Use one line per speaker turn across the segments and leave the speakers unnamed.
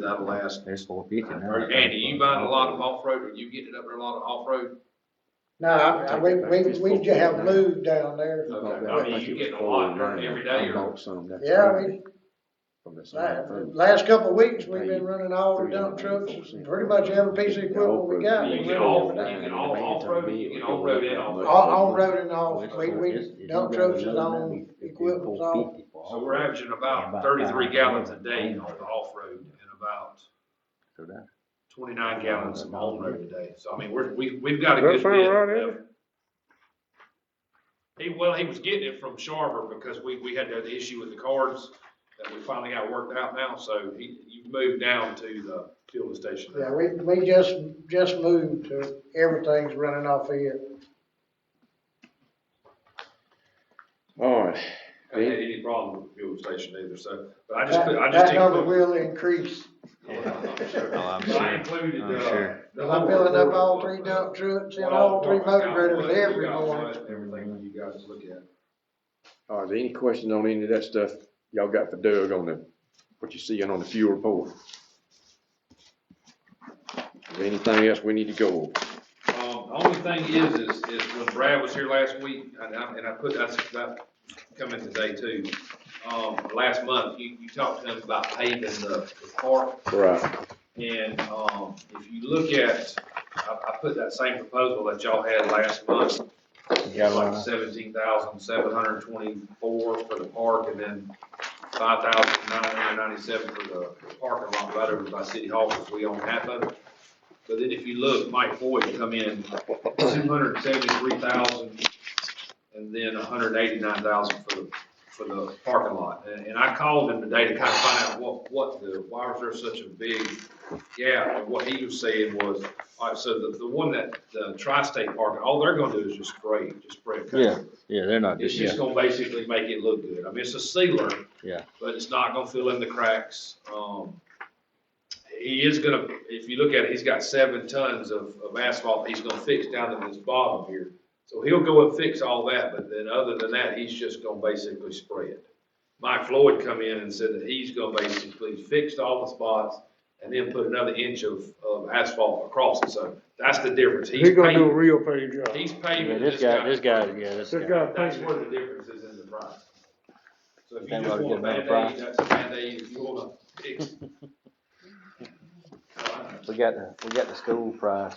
that last.
There's four fifty now.
Or Andy, you buying a lot of off-road, or you getting up there a lot of off-road?
No, I- I- we, we, we just have moved down there.
Okay, I mean, you getting a lot every day, or,
Yeah, we, la- last couple of weeks, we've been running all the dump trucks, pretty much every piece of equipment we got.
you
we
get
run
all,
everything.
you get all off-road, you get on-road and off-road.
On, on road and off, we, we, dump trucks is on, equipment's on.
So we're averaging about thirty-three gallons a day on the off-road and about twenty-nine gallons on-road today. So I mean, we're, we, we've got a
That
good
sound
bit.
right, Eddie?
of- He, well, he was getting it from Sharber because we, we had that issue with the cards that we finally got worked out now. So he, you moved down to the fueling station.
Yeah, we, we just, just moved to, everything's running off here.
All right.
I had any problem with the fueling station either, so, but I just,
That,
put- I just.
that number
included-
will increase,
Yeah, I'm sure.
Oh, I'm
I
sure.
included,
I'm
uh,
sure.
the
i I'm filling up all three dump trucks and all three motor graders every morning.
Everything you guys look at.
All right, any questions on any of that stuff y'all got for Doug on the, what you seeing on the fuel report? Is there Anything else we need to go over?
Um, the only thing is, is, is when Brad was here last week, and I, and I put, that's about coming today too. Um, last month, you, you talked to him about paving the, the park,
Right,
and, um, if you look at, I, I put that same proposal that y'all had last month.
Yeah,
Like seventeen thousand, seven hundred and twenty-four for the park, and then five thousand, nine hundred and ninety-seven for the the parking lot right over by City Hall, because we own half of it. But then if you look, Mike Boyd come in two hundred and seventy-three thousand, and then a hundred and eighty-nine thousand for the, for the parking lot. And, and I called him today to kind of find out what, what the, why was there such a big gap? And what he was saying was, all right, so the, the one that, the tri-state parking, all they're gonna do is just spray, just spray a coat.
Yeah, yeah, they're not
It's
just,
just
yeah,
gonna basically make it look good. I mean, it's a sealer.
Yeah.
But it's not gonna fill in the cracks. Um, he is gonna, if you look at it, he's got seven tons of, of asphalt he's gonna fix down in this bottom here. So he'll go and fix all that, but then other than that, he's just gonna basically spray it. Mike Floyd come in and said that he's gonna basically fix all the spots and then put another inch of, of asphalt across it. So that's the difference. He's
He gonna do a
paving,
real paid job.
he's
yeah,
paving
this guy, this guy, yeah, this
This
guy.
guy
that's
paid,
where the difference is in the price. So if you
Then
just
we'll
want a
get another
Band-Aid, that's a Band-Aid, if you want a fix.
We got the, we got the school prize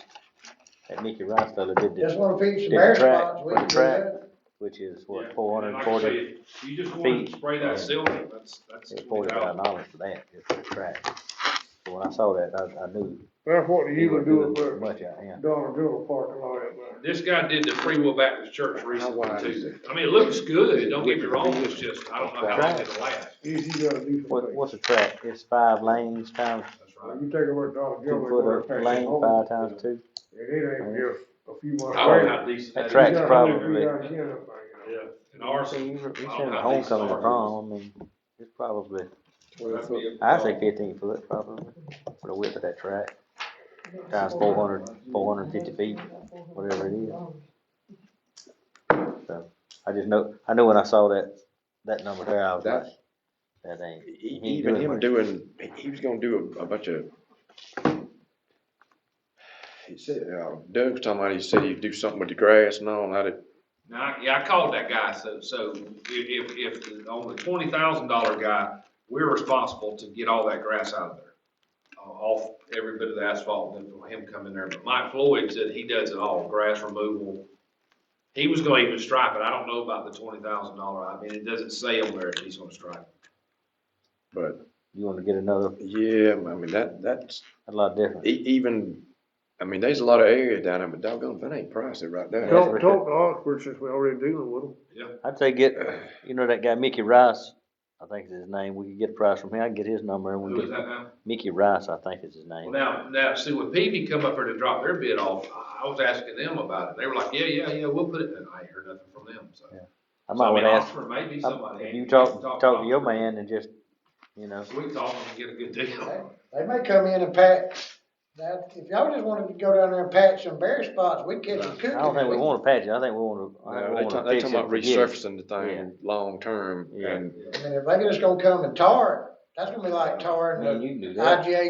that Mickey Rice fella did this,
Just wanna fix
Did
some
the
bare
track,
spots, we
run
can do
track.
that.
which is what,
Yeah,
four hundred
and
and
like I
forty,
said, If you just want
feet.
to spray that silver, that's, that's
forty-five
$20.
dollars for that, just for the track. So when I saw that, I, I knew.
that's what
he
he would
wasn't doing
do for
Much out here.
Donald Joe parking lot up there.
This guy did the Free Will Baptist Church recently
wide is
too. I mean, it looks good, don't get me wrong, it's just, I don't know how long it'll last.
He's, he gotta do
What,
something.
what's a track? It's five lanes times
That's right.
Uh, You take a look at Donald
two
Joe.
foot a lane, five times two.
And it ain't just a few months.
I don't know how decent
That
that is.
track's
He's gotta
probably-
do that again up there, you
Yeah,
know.
and ours.
See, you- you
I
seen
don't
the
know how decent
homecoming
ours is.
prom, I mean, it's probably,
Twelve foot.
I'd say fifteen foot probably, for the width of that track. Times four hundred, four hundred and fifty feet, whatever it is. So, I just know, I know when I saw that, that number there, I was like,
That's-
that ain't,
E-
He ain't
Even
doing
him
much.
doing, he- he was gonna do a, a bunch of. He said, uh, Doug was talking about, he said he'd do something with the grass and all, and I did,
Now, yeah, I called that guy, so, so if, if, if, on the twenty thousand dollar guy, we're responsible to get all that grass out of there. Uh, off every bit of the asphalt, and for him coming there, but Mike Floyd said he does it all, grass removal. He was gonna even stripe it, I don't know about the twenty thousand dollar, I mean, it doesn't say on there if he's gonna stripe. it.
but,
you wanna get another,
yeah, I mean, that, that's,
a lot different.
e- even, I mean, there's a lot of areas down there, but doggone, if that ain't pricey right there.
Talk-
Talk, talk to Oxford since we're already dealing with them.
I'd say get, you know, that guy Mickey Rice, I think is his name, we could get a price from him, I can get his number and we
Who is
can get,
that now?
Mickey Rice, I think is his
Well,
name.
now, now, see, when Peavy come up here to drop their bid off, I I was asking them about it, they were like, yeah, yeah, yeah, we'll put it, and I ain't heard nothing from them, so.
I
So,
might
mean,
wanna ask,
Oxford may be
I-
somebody.
if you
can
talk, talk to your
Oxford.
man and just, you know,
So we can talk and get a good deal.
They may come in and pack, now, if y'all just wanna go down there and patch some bare spots, we catch some cookies.
I don't think we want to patch it. I think we want to. I
No,
think we
They talk,
want
they
to fix
talking
it.
about
forget it.
resurfacing the thing long-term
Yeah.
and
I mean, if they just gonna come and tar it, that's gonna be like tarring
Man, you
the
can do that.
IGA